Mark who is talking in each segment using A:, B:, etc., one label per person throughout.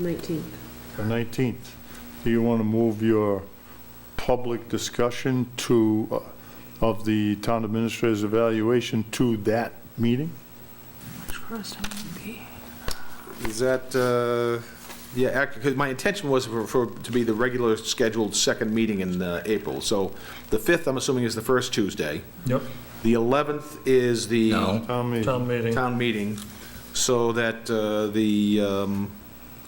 A: 19th.
B: the 19th. Do you want to move your public discussion to, uh, of the town administrator's evaluation to that meeting?
C: Is that, uh, yeah, act- 'cause my intention was for, for, to be the regular scheduled second meeting in uh, April. So the 5th, I'm assuming, is the first Tuesday.
D: Yep,
C: The 11th is the
E: No.
B: Town meeting,
D: town meeting.
C: town meeting, so that uh, the, um,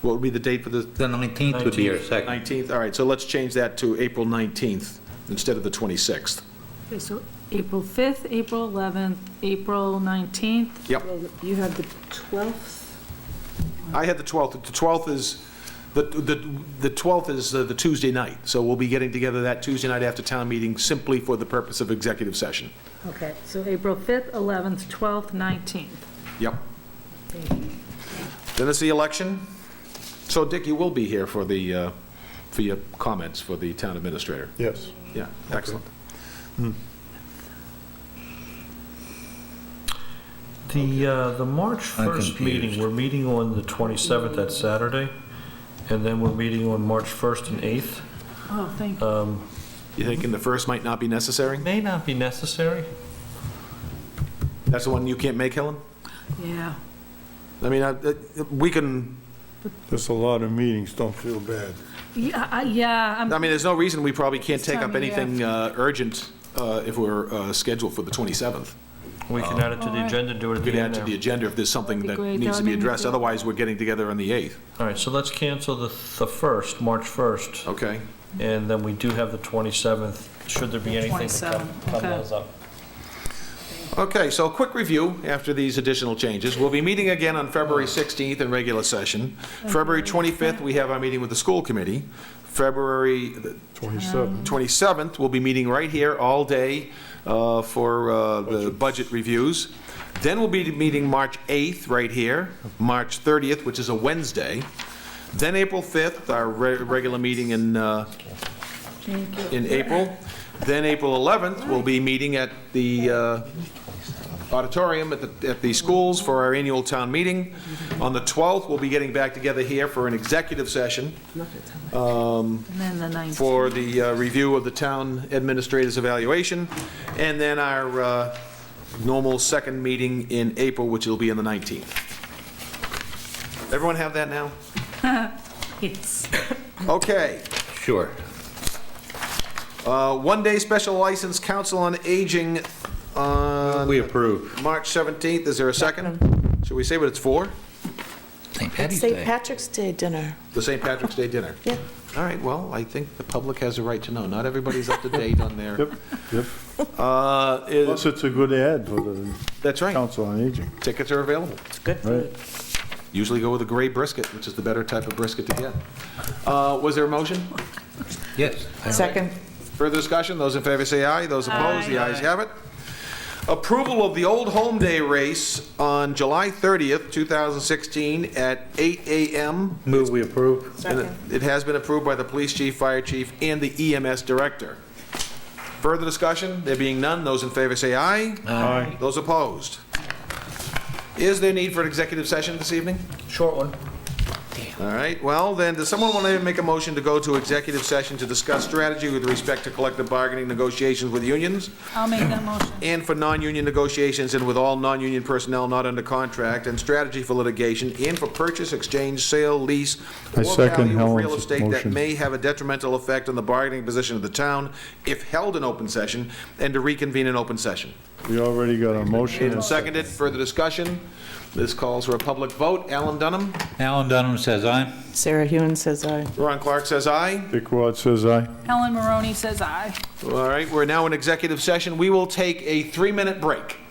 C: what would be the date for the
E: The 19th would be your second.
C: 19th? All right, so let's change that to April 19th instead of the 26th.
F: Okay, so April 5th, April 11th, April 19th,
C: Yep.
A: Well, You have the 12th,
C: I had the 12th. The 12th is, the, the, the 12th is uh, the Tuesday night, so we'll be getting together that Tuesday night after town meeting simply for the purpose of executive session.
F: okay, so April 5th, 11th, 12th, 19th.
C: Yep. Then it's the election. So Dick, you will be here for the, uh, for your comments for the town administrator.
B: yes.
C: Yeah, excellent.
D: The, uh, the March
E: I'm
D: 1st
E: confused.
D: meeting, we're meeting on the 27th, that's Saturday, and then we're meeting on March 1st and 8th.
F: Oh, thank you.
C: You thinking the first might not be necessary?
D: May not be necessary.
C: That's the one you can't make, Helen?
F: Yeah.
C: I mean, I- uh, we can,
B: There's a lot of meetings, don't feel bad.
F: Yeah, I- yeah, I'm-
C: I mean, there's no reason we probably can't
F: This
C: take
F: time
C: up
F: of year.
C: anything uh, urgent uh, if we're uh, scheduled for the 27th.
D: We can add it to the
F: Alright.
D: agenda, do it at
C: Oh. We
D: the
C: could add
D: end
C: to the
D: there.
C: agenda if there's something
F: That'd
C: that
F: be great.
C: needs
F: That would
C: to be
F: be
C: addressed.
F: good.
C: Otherwise, we're getting together on the 8th.
D: All right, so let's cancel the, the 1st, March 1st,
C: Okay?
D: and then we do have the 27th, should there be anything that come-
F: 27th, okay.
D: comes up.
C: Okay, so a quick review after these additional changes. We'll be meeting again on February 16th in regular session. February 25th, we have our meeting with the school committee. February the
B: 27.
C: 27th, we'll be meeting right here all day uh, for uh, the budget reviews. Then we'll be meeting March 8th, right here, March 30th, which is a Wednesday. Then April 5th, our re- regular meeting in, uh, in April. Then April 11th, we'll be meeting at the uh, auditorium at the, at the schools for our annual town meeting. On the 12th, we'll be getting back together here for an executive session
F: and then the 19th.
C: for the uh, review of the town administrator's evaluation, and then our uh, normal second meeting in April, which will be on the 19th. Everyone have that now?
F: Yes.
C: Okay.
E: Sure.
C: Uh, One-day special license, Council on Aging on
E: We approve.
C: March 17th. Is there a second? Should we say what it's for?
E: St.
G: It's
E: Patty's
G: St.
E: Day.
G: Patrick's Day dinner.
C: The St. Patrick's Day dinner?
G: Yeah.
C: All right, well, I think the public has a right to know. Not everybody's up to date on their...
B: Yep, yep.
C: Uh, is-
B: Plus, it's a good ad for the
C: That's right.
B: Council on Aging,
C: Tickets are available.
G: It's good
B: right?
G: food.
C: Usually go with a gray brisket, which is the better type of brisket to get. Uh, Was there a motion?
E: Yes.
G: Second.
C: Further discussion? Those in favor say aye. Those opposed, the ayes have it. Approval of the Old Home Day race on July 30th, 2016 at 8 a.m.
E: Move we approve.
C: And it- It has been approved by the police chief, fire chief, and the EMS director. Further discussion? There being none, those in favor say aye. Aye. Those opposed? Is there need for an executive session this evening?
D: Short one.
C: All right, well, then, does someone want to make a motion to go to executive session to discuss strategy with respect to collective bargaining negotiations with unions
F: I'll make that motion.
C: and for non-union negotiations and with all non-union personnel not under contract and strategy for litigation and for purchase, exchange, sale, lease,
B: I
C: or
B: second
C: value of real
B: Helen's
C: estate that
B: motion.
C: may have a detrimental effect on the bargaining position of the town if held in open session and to reconvene in open session.
B: We already got a motion.
C: Made and seconded, further discussion. This calls for a public vote. Alan Dunham,
E: Alan Dunham says aye.
G: Sarah Hewen says aye.
C: Ron Clark says aye.
B: Dick Ward says aye.
F: Helen Maroney says aye.
C: All right, we're now in executive session. We will take a three-minute break.